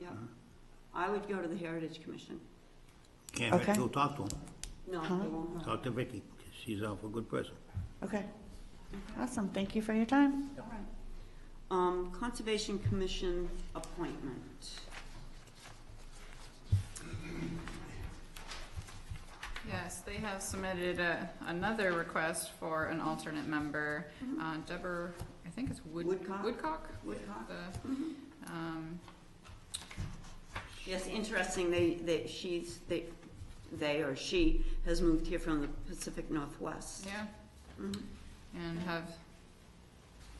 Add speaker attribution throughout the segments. Speaker 1: yeah. I would go to the Heritage Commission.
Speaker 2: Can't
Speaker 3: Okay.
Speaker 2: Vicky will talk to him.
Speaker 1: No, they won't.
Speaker 2: Talk to Vicky. She's an awful good person.
Speaker 3: Okay. Awesome, thank you for your time.
Speaker 1: All right. Um, Conservation Commission appointment.
Speaker 4: Yes, they have submitted a, another request for an alternate member, uh, Deborah, I think it's Wood-
Speaker 1: Woodcock?
Speaker 4: Woodcock?
Speaker 1: Woodcock.
Speaker 4: The, um,
Speaker 1: Yes, interesting, they, they, she's, they, they or she has moved here from the Pacific Northwest.
Speaker 4: yeah,
Speaker 1: Mhm.
Speaker 4: and have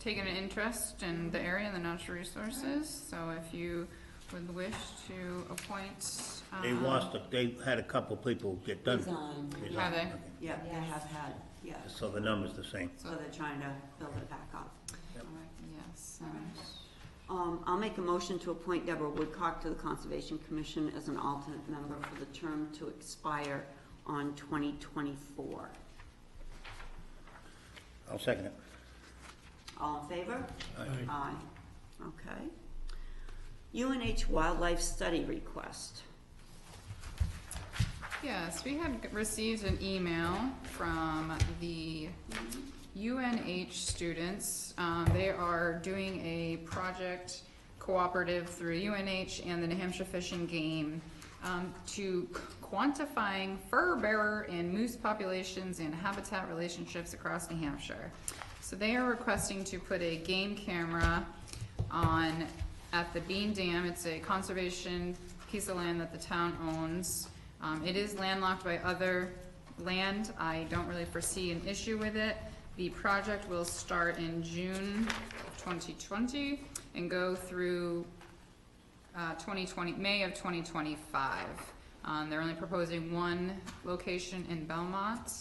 Speaker 4: taken an interest in the area and the natural resources, so if you would wish to appoint, um.
Speaker 2: They lost, a- they had a couple people get done.
Speaker 1: Resigned.
Speaker 2: Resign,
Speaker 4: Have they?
Speaker 2: okay.
Speaker 1: Yeah, they have had, yeah,
Speaker 2: So the number's the same.
Speaker 1: so they're trying to build it back up. All right.
Speaker 4: Yes, and
Speaker 1: Um, I'll make a motion to appoint Deborah Woodcock to the Conservation Commission as an alternate member for the term to expire on twenty twenty-four.
Speaker 2: I'll second it.
Speaker 1: All in favor?
Speaker 2: Aye.
Speaker 1: Aye. Okay. UNH Wildlife Study Request.
Speaker 4: Yes, we had received an email from the UNH students. Um, they are doing a project cooperative through UNH and the New Hampshire Fish and Game um, to quantifying fur bearer and moose populations and habitat relationships across New Hampshire. So they are requesting to put a game camera on, at the Bean Dam. It's a conservation piece of land that the town owns. Um, it is landlocked by other land. I don't really foresee an issue with it. The project will start in June twenty twenty and go through uh, 2020, May of 2025. Um, They're only proposing one location in Belmont.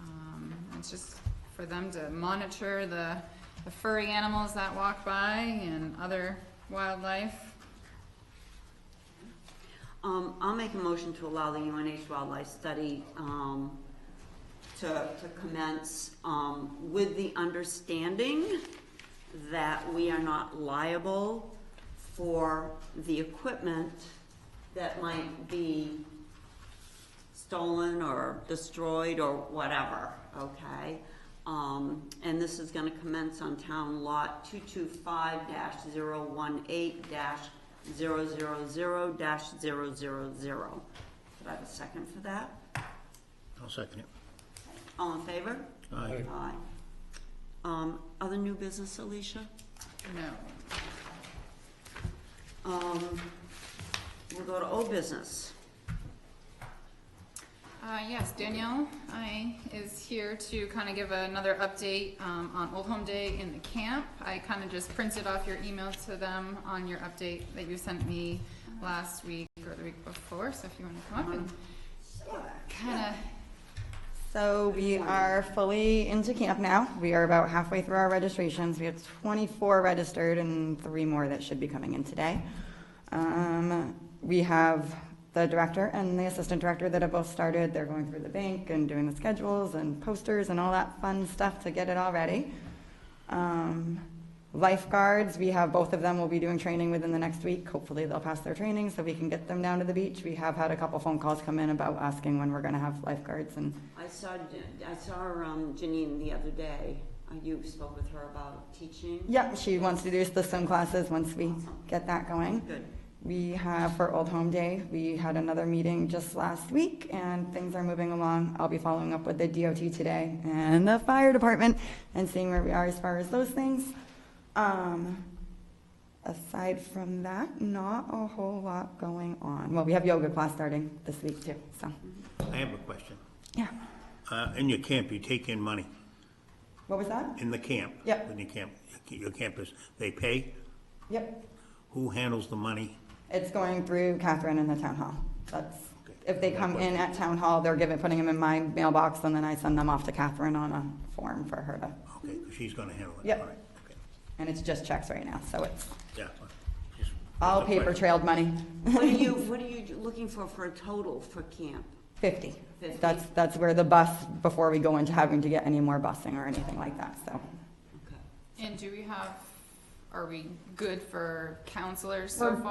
Speaker 4: Um, It's just for them to monitor the the furry animals that walk by and other wildlife.
Speaker 1: Um, I'll make a motion to allow the UNH Wildlife Study, um, to, to commence, um, with the understanding that we are not liable for the equipment that might be stolen or destroyed or whatever, okay? Um, and this is gonna commence on town lot two-two-five dash zero-one-eight dash zero-zero-zero dash zero-zero-zero. Could I have a second for that?
Speaker 2: I'll second it.
Speaker 1: All in favor?
Speaker 2: Aye.
Speaker 1: Aye. Um, other new business, Alicia?
Speaker 4: No.
Speaker 1: Um, we'll go to old business.
Speaker 4: Uh, Yes, Danielle I is here to kind of give another update um, on Old Home Day in the camp. I kind of just printed off your email to them on your update that you sent me last week or the week before, so if you want to come up and kind of
Speaker 3: So we are fully into camp now. We are about halfway through our registrations. We have 24 registered and three more that should be coming in today. Um, We have the director and the assistant director that have both started. They're going through the bank and doing the schedules and posters and all that fun stuff to get it all ready. Um, Lifeguards, we have, both of them will be doing training within the next week. Hopefully, they'll pass their training so we can get them down to the beach. We have had a couple phone calls come in about asking when we're going to have lifeguards and
Speaker 1: I saw, Jan- I saw um, Janine the other day. Uh, You spoke with her about teaching?
Speaker 3: Yeah, she wants to do the swim classes once we get that going.
Speaker 1: Good.
Speaker 3: We have for Old Home Day, we had another meeting just last week and things are moving along. I'll be following up with the DOT today and the fire department and seeing where we are as far as those things. Um, aside from that, not a whole lot going on. Well, we have yoga class starting this week too, so,
Speaker 2: I have a question.
Speaker 3: yeah.
Speaker 2: Uh, in your camp, you take in money.
Speaker 3: What was that?
Speaker 2: In the camp?
Speaker 3: Yep.
Speaker 2: In your camp, your campus, they pay?
Speaker 3: Yep.
Speaker 2: Who handles the money?
Speaker 3: It's going through Catherine and the town hall. That's,
Speaker 2: Okay.
Speaker 3: if they come in at town hall, they're giving, putting them in my mailbox, and then I send them off to Catherine on a form for her to,
Speaker 2: Okay, 'cause she's gonna handle it.
Speaker 3: Yep.
Speaker 2: All right, okay.
Speaker 3: and it's just checks right now, so it's
Speaker 2: Yeah. Just-
Speaker 3: all
Speaker 2: that's a
Speaker 3: paper
Speaker 2: question.
Speaker 3: trailed money,
Speaker 1: What are you, what are you looking for, for a total for camp?
Speaker 3: fifty.
Speaker 1: Fifty.
Speaker 3: That's, that's where the bus, before we go into having to get any more busing or anything like that, so.
Speaker 1: Okay.
Speaker 4: And do we have, are we good for counselors so
Speaker 3: We're-
Speaker 4: far?